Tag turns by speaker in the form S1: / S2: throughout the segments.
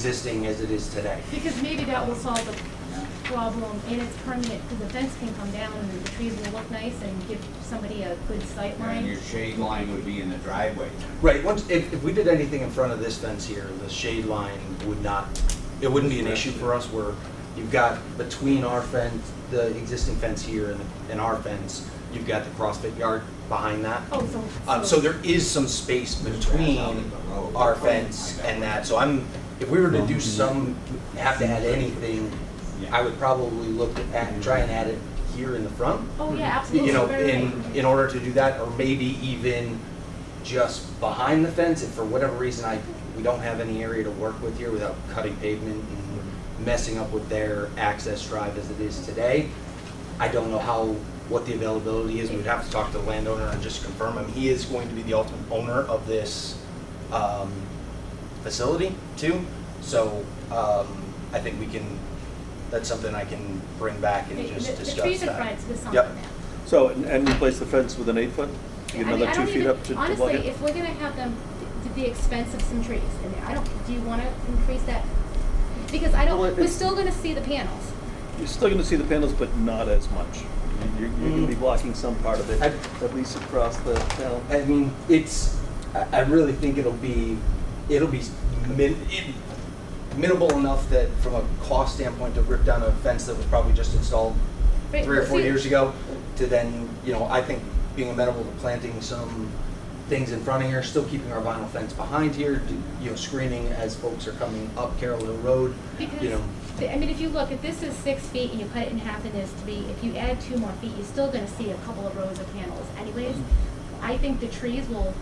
S1: existing as it is today.
S2: Because maybe that will solve the problem and it's permanent, because the fence can come down and the trees will look nice and give somebody a good sight
S3: And
S2: line.
S3: your shade line would be in the driveway.
S1: Right, once, if, if we did anything in front of this fence here, the shade line would not, it wouldn't be an issue for us where you've got between our fence, the existing fence here and, and our fence, you've got the CrossFit yard behind that.
S2: Oh, so.
S1: Um, so there is some space between our fence and that, so I'm, if we were to do some, have to add anything, I would probably look at, try and add it here in the front.
S2: Oh, yeah, absolutely.
S1: You know,
S2: Very
S1: in,
S2: right.
S1: in order to do that, or maybe even just behind the fence, if for whatever reason I, we don't have any area to work with here without cutting pavement and messing up with their access drive as it is today, I don't know how, what the availability is, we'd have to talk to the landowner and just confirm him, he is going to be the ultimate owner of this, um, facility too, so, um, I think we can, that's something I can bring back and
S2: The-
S1: just
S2: the-
S1: discuss that.
S2: The trees in front is something
S1: Yep.
S2: now.
S4: So, and- and replace the fence with an eight foot?
S2: Yeah,
S4: Get
S2: I mean, I
S4: another two
S2: don't
S4: feet
S2: even-
S4: up to to block it?
S2: Honestly, if we're gonna have them, th- the expense of some trees in there, I don't, do you wanna increase that? Because I
S4: Well,
S2: don't,
S4: it-
S2: we're still gonna see the panels.
S4: You're still gonna see the panels, but not as much. You're, you're gonna be
S3: Mm.
S4: blocking some part of it,
S1: I-
S4: at least across the panel.
S1: I mean, it's. I, I really think it'll be, it'll be min, it, minimal enough that from a cost standpoint to rip down a fence that was probably just installed
S2: Right,
S1: three or
S2: but
S1: four
S2: see-
S1: years ago to then, you know, I think being amenable to planting some things in front of here, still keeping our vinyl fence behind here, do- you know, screening as folks are coming up Carroll Hill Road, you
S2: Because,
S1: know.
S2: the- I mean, if you look, if this is six feet and you cut it in half and there's three, if you add two more feet, you're still gonna see a couple of rows of panels anyways.
S4: Mm-hmm.
S2: I think the trees will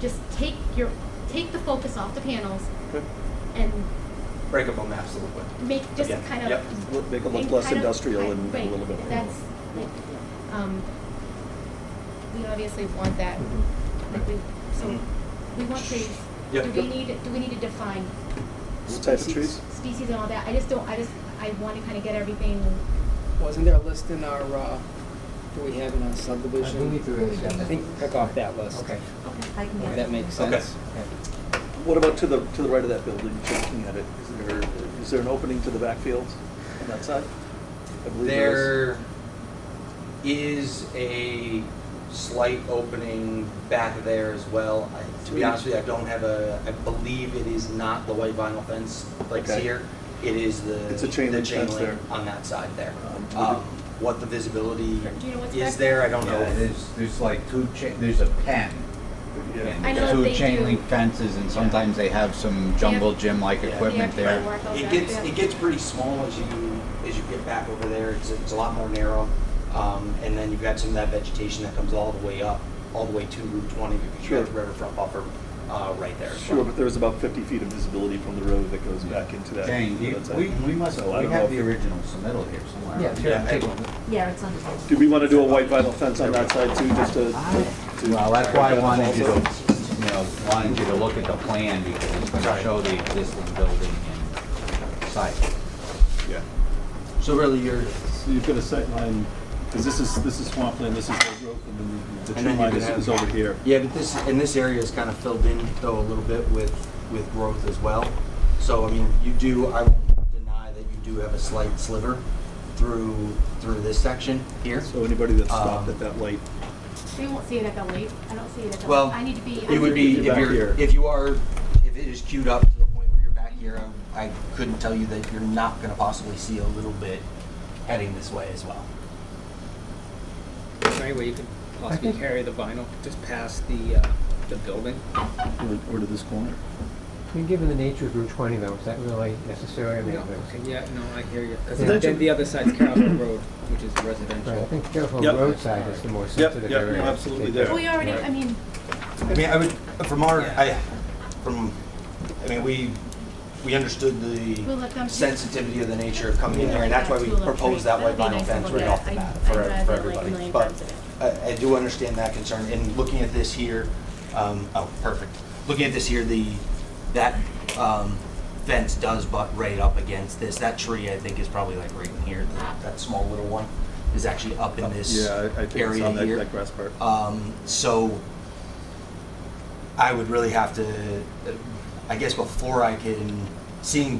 S2: just take your, take the focus off the panels
S4: Okay.
S2: and
S1: Break up on maps a little bit.
S2: make, just
S1: Yeah,
S2: kind of
S1: yep.
S4: Look- Make it look
S2: And
S4: less
S2: kind of-
S4: industrial
S2: right,
S4: and a
S2: right,
S4: little bit.
S2: That's, like, um, we obviously want that,
S4: Mm-hmm.
S2: like we, so,
S1: Mhm.
S2: we want trees.
S1: Yep.
S2: Do we need, do we need to define
S4: What type of trees?
S2: species and all that? I just don't, I just, I wanna kinda get everything,
S5: Wasn't there a list in our, uh, do we have in our subdivision?
S6: I believe there is, yeah.
S5: I think pick off that list.
S6: Okay.
S2: okay,
S5: If that makes
S1: Okay.
S5: sense.
S4: What about to the, to the right of that building, just looking at it? Is there, is there an opening to the backfield on that side? I believe is.
S1: There is a slight opening back there as well. I- To be honest with you, I don't have a, I believe it is not the white vinyl fence like
S4: Okay.
S1: here. It is the,
S4: It's a chain
S1: the
S4: link
S1: chain
S4: fence
S1: link
S4: there.
S1: on that side there.
S4: Um,
S1: Um, What the visibility
S2: Do you know what's
S1: is
S2: back
S1: there, I don't know.
S3: Yeah, there's, there's like two, cha- there's a pen.
S4: Yeah.
S2: I
S3: and
S2: know they
S3: Two chain
S2: do.
S3: link fences and sometimes they have some jungle gym-like
S1: Yeah.
S3: equipment
S2: Yeah,
S3: there.
S2: people work on
S1: It
S2: that,
S1: gets,
S2: yeah.
S1: it gets pretty small as you, as you get back over there, it's, it's a lot more narrow. Um, and then you've got some of that vegetation that comes all the way up, all the way to Route twenty, because you've got the
S4: Sure.
S1: riverfront buffer, uh, right there. as
S4: Sure,
S1: well.
S4: but there's about fifty feet of visibility from the road that goes back into that.
S3: Jane, you-
S4: that side.
S3: we, we must,
S4: So I
S3: we
S4: don't know
S3: have
S4: if
S3: the
S4: it-
S3: original submittal here somewhere.
S6: Yeah, sure,
S1: Yeah, I-
S6: take one.
S7: Yeah, it's on the
S4: Do we want to do a white vinyl fence on that side too, just to? to-
S3: Well, that's why I wanted you to, you know, wanted you to look at the plan because it's gonna
S1: Right.
S3: show the existing building and site.
S4: Yeah.
S1: So really, you're,
S4: So you've got a sight line, because this is, this is swampland, this is the growth, and then
S1: And
S4: the- the tree
S1: then you
S4: line
S1: can
S4: is,
S1: have-
S4: is over here.
S1: yeah, but this, and this area is kind of filled in though a little bit with, with growth as well. So, I mean, you do, I won't deny that you do have a slight sliver through, through this section here.
S4: So anybody that stopped
S1: Um,
S4: at that light,
S2: we won't see it at the lake, I don't see it at the,
S1: Well,
S2: lake. I need to be. I
S1: It would
S2: need
S1: be,
S2: to
S1: if
S4: Back
S1: you're,
S4: here.
S1: if you are, if it is queued up to the point where you're back here, um, I I couldn't tell you that you're not gonna possibly see a little bit heading this way as well.
S5: Is there any way you could possibly carry the vinyl just past the, uh, the building?
S4: or, or to this corner?
S6: I mean, given the nature of Route 20 though, is that really necessary? I mean,
S5: Yeah,
S6: it's-
S5: okay, yeah, no, I hear you. 'Cause
S6: Yeah.
S5: then- then the other side's Carroll Hill Road, which is
S6: Right, I
S5: residential.
S6: think careful
S4: Yep.
S6: roadside is the more sensitive
S4: yep,
S6: area.
S4: no,
S6: to
S4: absolutely
S6: take
S4: there.
S2: Well, We already, I mean,
S1: I mean, I would, from our, I, from, I mean, we, we understood
S2: We'll let them
S1: the
S2: choose.
S1: sensitivity of the nature of coming in here, and that's why we
S2: Tulip tree.
S1: proposed that white vinyl
S2: That'd be nice to
S1: fence
S2: look
S1: right
S2: at.
S1: off the
S2: I'd-
S1: bat
S2: I'd
S1: for,
S2: drive
S1: for
S2: that, like, a
S1: everybody.
S2: million
S1: But
S2: times
S1: I, I do understand that concern, and looking at this here, um, oh, perfect. Looking at this here, the, that, um, fence does butt right up against this. That tree, I think, is probably like right in here, that small little one is actually up in this
S4: Yeah,
S1: area
S4: I, I think it's on that,
S1: here.
S4: that grass part.
S1: Um, so I would really have to, I guess before I can seeing